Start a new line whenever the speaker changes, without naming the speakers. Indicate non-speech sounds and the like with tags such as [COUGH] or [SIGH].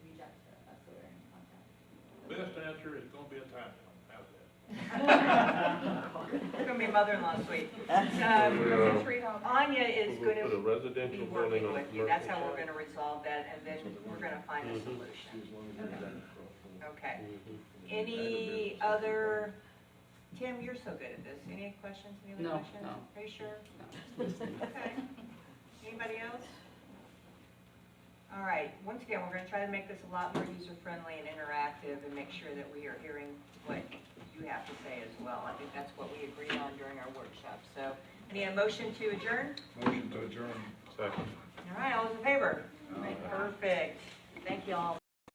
answer is gonna be a time limit, how's that?
[LAUGHS] It's gonna be mother-in-law's suite.
Yeah.
Um, Anya is
uh, We'll
gonna
Put a
be
residential building
working
on a
with you,
commercial.
that's how we're
site.
gonna resolve that, and then we're gonna find a
Mhm.
solution, okay?
Mhm.
Any other, Tim, you're so good at this, any questions, any
No,
other questions?
no.
Are you sure? Okay. Anybody else? All right, once again, we're gonna try to make this a lot more user-friendly and interactive and make sure that we are hearing what you have to say as well. I think that's what we agreed on during our workshop, so, any motion to adjourn?
Motion to adjourn.
Second.
All right, all those in favor? Perfect, thank you all.